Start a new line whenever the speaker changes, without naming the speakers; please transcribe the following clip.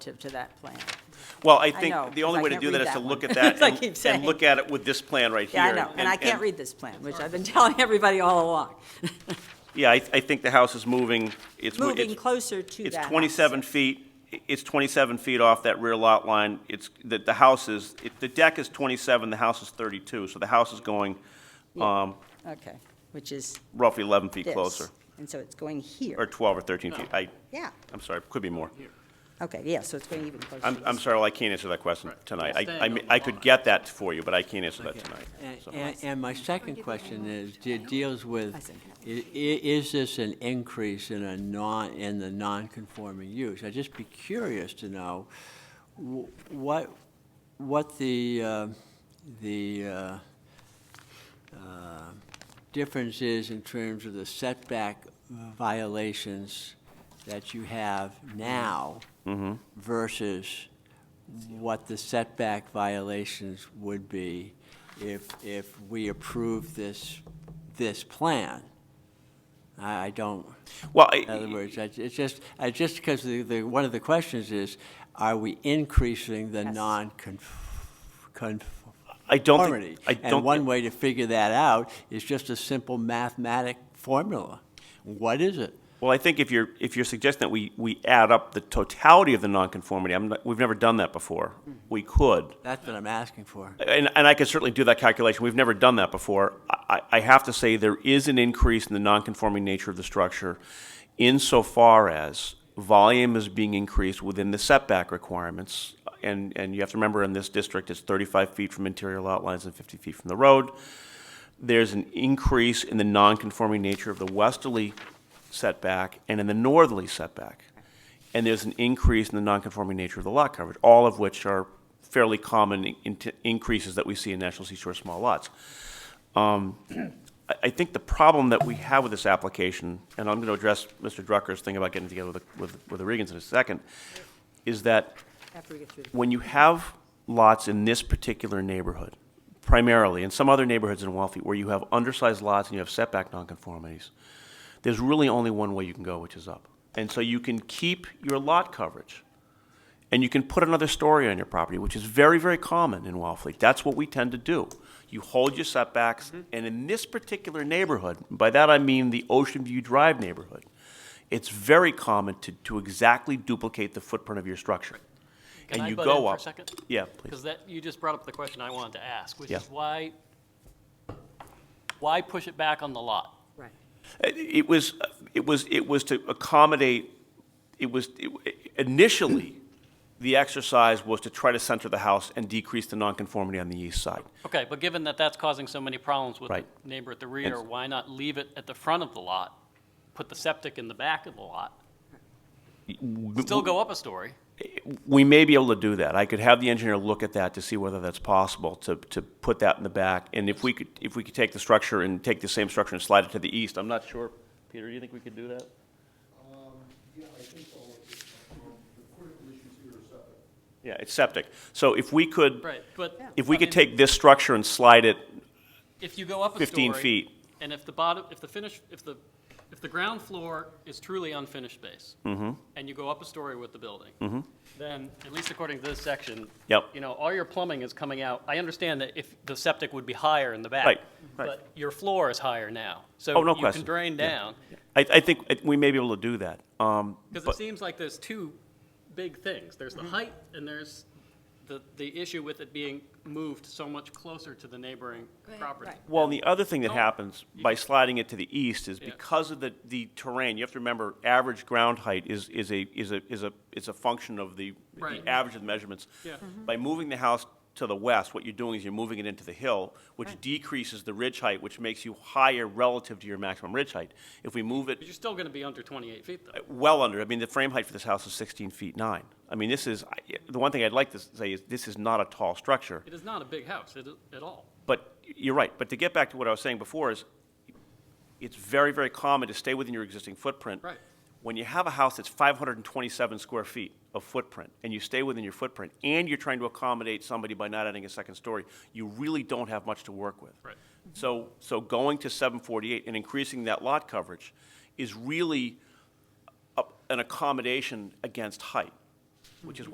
to, to that plan.
Well, I
know,
think the
'cause
only
I
way to
can't
do that
read
is to
that
look
one.
at that
As I
and-
keep
and
saying.
look at it with this plan right here.
Yeah, I know, and I can't read this plan, which I've been telling everybody all along.
Yeah, I, I think the house is moving, it's. mo-
Moving
it's-
closer to that
It's
house.
27 feet, i- it's 27 feet off that rear lot line. It's, the, the house is, it- the deck is 27, the house is 32, so the house is going um,
Okay, which is
roughly 11 feet
this.
closer,
And so it's going
or
here.
12 or 13 feet. I,
Yeah,
I'm sorry, could be more.
okay, yeah, so it's going even closer.
I'm,
to
I'm
this.
sorry, well, I can't answer that question tonight. I- I,
Staying
mean,
on the
I could
lot.
get that for you, but I can't answer that tonight.
And-
so.
And, and my second question is, it deals with,
I said-
i- i- is this an increase in a non, in the non-conforming use? I'd just be curious to know wh- what, what the, uh, the uh, uh, difference is in terms of the setback violations that you have now versus what the setback violations would be if, if we approve this, this plan. I, I don't,
Well,
in other
I-
words, I- it's just, I just because the, the, one of the questions is, are we increasing the
Yes.
non-conformity?
I don't think, I
And
don't,
one
thi-
way to figure that out is just a simple mathematic formula. What is it?
well, I think if you're, if you're suggesting that we, we add up the totality of the nonconformity, I'm, not- we've never done that before. We could.
That's what I'm asking for.
And, and I can certainly do that calculation. We've never done that before. I, I I have to say there is an increase in the nonconforming nature of the structure insofar as volume is being increased within the setback requirements. And, and you have to remember in this district, it's 35 feet from interior lot lines and 50 feet from the road. There's an increase in the nonconforming nature of the westerly setback and in the northerly setback. And there's an increase in the nonconforming nature of the lot coverage, all of which are fairly common in- in- increases that we see in National Seashore small lots. Um, I, I think the problem that we have with this application, and I'm going to address Mr. Drucker's thing about getting together with, the- with, with the Regans in a second, is that
After we get through the-
when you have lots in this particular neighborhood, primarily, and some other neighborhoods in Wellfleet, where you have undersized lots and you have setback nonconformities, there's really only one way you can go, which is up. And so you can keep your lot coverage, and you can put another story on your property, which is very, very common in Wellfleet. That's what we tend to do. You hold your setbacks, and in this particular neighborhood, by that I mean the Ocean View Drive neighborhood, it's very common to, to exactly duplicate the footprint of your structure. and
Can I
you
butt
go
in for a
up.
second?
Yeah,
Because
please.
that, you just brought up the question I wanted to ask, which
Yeah.
is why, why push it back on the lot?
Right.
It- It was, it was, it was to accommodate, it was, it- initially, the exercise was to try to center the house and decrease the nonconformity on the east side.
Okay, but given that that's causing so many problems with the
Right.
neighbor at the rear,
It's-
why not leave it at the front of the lot, put the septic in the back of the lot, still go up a story?
We may be able to do that. I could have the engineer look at that to see whether that's possible, to, to put that in the back. And if we could, if we could take the structure and take the same structure and slide it to the east, I'm not sure. Peter, do you think we could do that?
Yeah, I think so. Um, The critical issues here are separate.
Yeah, it's septic. So if we could,
Right, but.
if we
I
could
mean,
take this structure and slide it
If you go up a story.
15 feet.
And if the bottom, if the finish, if the, if the ground floor is truly unfinished space.
Mm-hmm.
And you go up a story with the building. Then, at least according to this section.
Yep.
You know, all your plumbing is coming out. I understand that if the septic would be higher in the back.
Right, right.
But your floor is higher
Oh,
now.
no
So you can
question.
drain
Yeah.
down.
I, I think it- we may be able to do that. Um,
Because
but-
it seems like there's two big things. There's
Mm-hmm.
the height and there's the, the issue with it being moved so much closer to the neighboring property.
right.
Well, and the other thing that
Oh.
happens by sliding it to the east is
Yeah.
because of the, the terrain, you have to remember, average ground height is, is a, is a, is a, is a function of the, the
Right.
average of the measurements.
Yeah. Mhm.
By moving the house to the west, what you're doing is you're moving it into the hill, which decreases the ridge height, which makes you higher relative to your maximum ridge height. If we move
But
it
you're still going to be under 28 feet, though.
well under, I mean, the frame height for this house is 16 feet 9. I mean, this is, I- the one thing I'd like to say is, this is not a tall structure.
It is not a big house at, at all.
But you're right. But to get back to what I was saying before is, it's very, very common to stay within your existing footprint.
Right.
When you have a house that's 527 square feet of footprint, and you stay within your footprint, and you're trying to accommodate somebody by not adding a second story, you really don't have much to work with.
Right.
So, so going to 748 and increasing that lot coverage is really a- an accommodation against height, which is